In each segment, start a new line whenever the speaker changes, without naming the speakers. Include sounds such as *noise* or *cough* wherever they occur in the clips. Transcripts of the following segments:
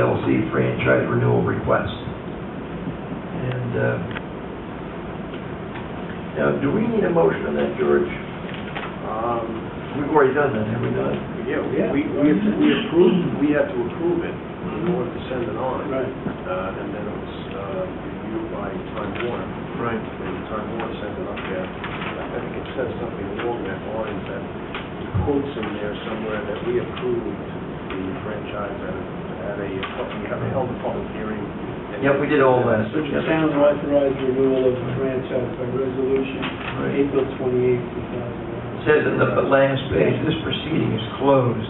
LLC franchise renewal request. And, uh, now, do we need a motion on that, George?
Um,
We've already done that, have we not?
yeah, we, we we approved, we had to approve it in order to send it on.
Right.
Uh, and then it was, uh, reviewed by Time Warner,
Right.
and Time Warner sent it up there. I think it says something along that line, that quotes in there somewhere that we approved the franchise at, a- at a, we have held a public hearing. and-
Yep, we did all last.
Which the town authorized renewal of the franchise by resolution,
Right.
April twenty-eighth, two thousand and
It
one.
Says in the last page, this proceeding is closed.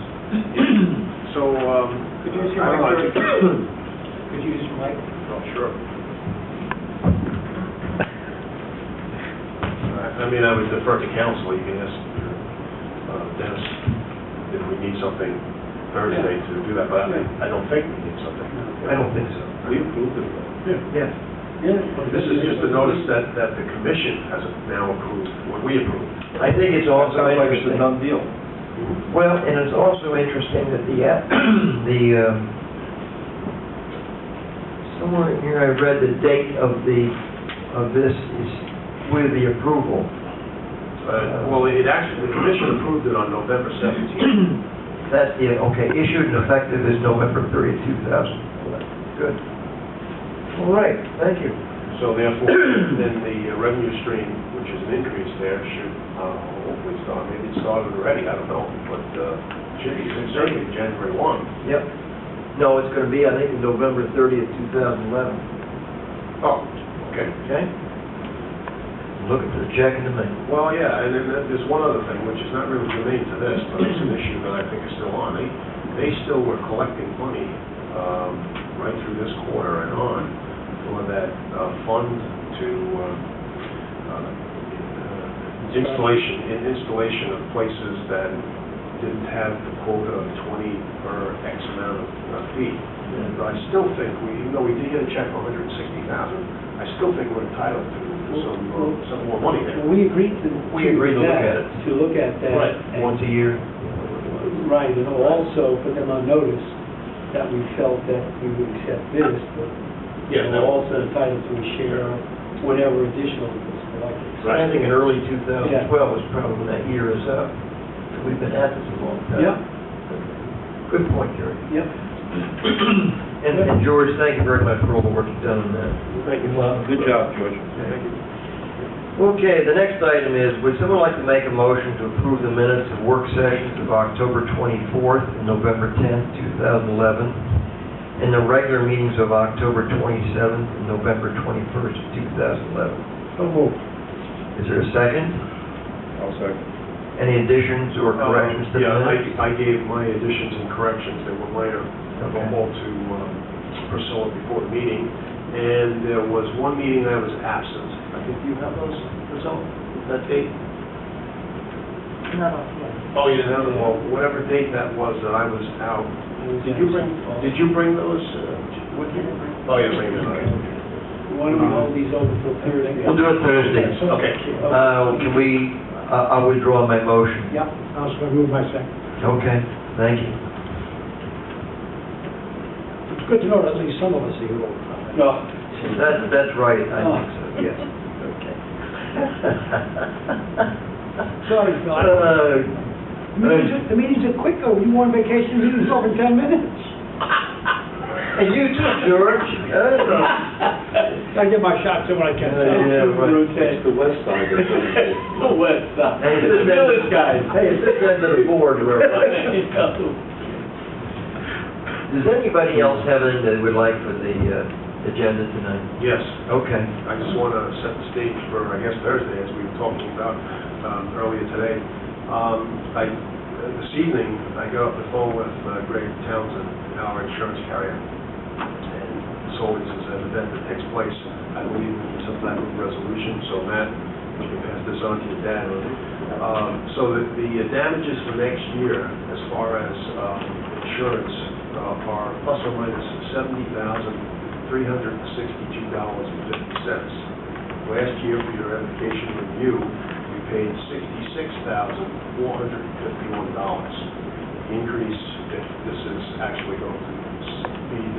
So, um.
Could you see
I don't
my
know,
picture? Could you use your mic?
Oh, sure. I I mean, I would defer to council, you can ask uh, Dennis if we need something Thursday to do that, but I I don't think we need something.
I don't think so.
We approved it.
Yes.
Yeah.
This is just a notice that, that the commission has now approved what we approved.
I think it's also
Sounds like it's a
interesting.
done deal.
Well, and it's also interesting that the, uh, *clears throat* the, um, somewhere in here I read the date of the, of this is with the approval. *clears throat*
Uh, Well, it actually, the commission approved it on November 17th.
That's the, okay, issued and effective is November 30, 2011. Good. All right, thank you.
So therefore, *coughs* then the uh, revenue stream, which is an increase there, should uh, hopefully start, maybe it started already, I don't know, but uh, should be certainly January 1.
Yep. No, it's going to be, I think, November 30th, 2011,
Oh, okay.
okay? Looking for the check in the mail.
Well, yeah, and then there's one other thing, which is not really germane to this, but it's an issue that I think is still on. They, they still were collecting money um, right through this quarter and on for that uh, fund to uh, uh, installation, in- installation of places that didn't have the quota of 20 per X amount of uh, feet. And I still think, we, even though we did get a check for 160,000, I still think we're entitled to some, uh, some more money there.
Well, We agreed to.
We agreed to look
that,
at it.
To look at that. and-
Once a year.
Right, and also put them on notice that we felt that we would accept this, but
Yeah,
we're
no.
also entitled to a share of whatever additional is collected.
So I think in early 2012
Yeah.
was probably when that year is up. We've been at this a long time.
Yep,
Good point, Jerry. *clears throat*
yep.
And, and George, thank you very much for all the work you've done on that.
Thank you.
Good job,
George. Thank you.
Okay, the next item is, would someone like to make a motion to approve the minutes of work sessions of October 24th and November 10th, 2011, and the regular meetings of October 27th and November 21st, 2011?
So moved.
Is there a second?
I'll second. Uh,
Any additions or corrections to the
Yeah,
minutes?
I, I gave my additions and corrections that were later
Okay.
available to um, Priscilla before the meeting, and there was one meeting I was absent. I think you have those, Priscilla, that date? Oh, you didn't have them, well, whatever date that was that I was out. Did you bring, did you bring those? uh, with you? Oh, you bring them, all right.
Why don't we hold these over till Thursday?
We'll do it Thursday.
Okay.
Uh, can we, I I withdraw my motion.
Yep, I was gonna move my second.
Okay, thank you.
It's good to know that at least some of us are here all the time. No.
That's, that's right, I
Oh.
think so,
*laughs*
yes. Okay.
Sorry, Phil.
Uh,
The meetings are- The meetings are quick, though. You want vacation, meeting's over in 10 minutes.
And you too,
*laughs*
George. Uh,
I get my shots in when I can.
Yeah, yeah, right.
Rotate.
the west side of
*laughs* The West Side.
Hey, this
The
is-
village guys.
Hey, it's this end of the board
*laughs*
where, does anybody else have anything they would like for the, uh, agenda tonight?
Yes.
Okay.
I just want to set the stage for, I guess, Thursday, as we were talking about um, earlier today. Um, I, uh, this evening, I got off the phone with uh, Greg Townsend, our insurance carrier, and this always is an event that takes place, I believe, in some type of resolution, so Matt, you can pass this on to your dad. Um, So that the damages for next year, as far as um, insurance, uh, are plus or minus seventy thousand $362.50. Last year, for your education review, we paid $66,451. Increase, if this is actually going to the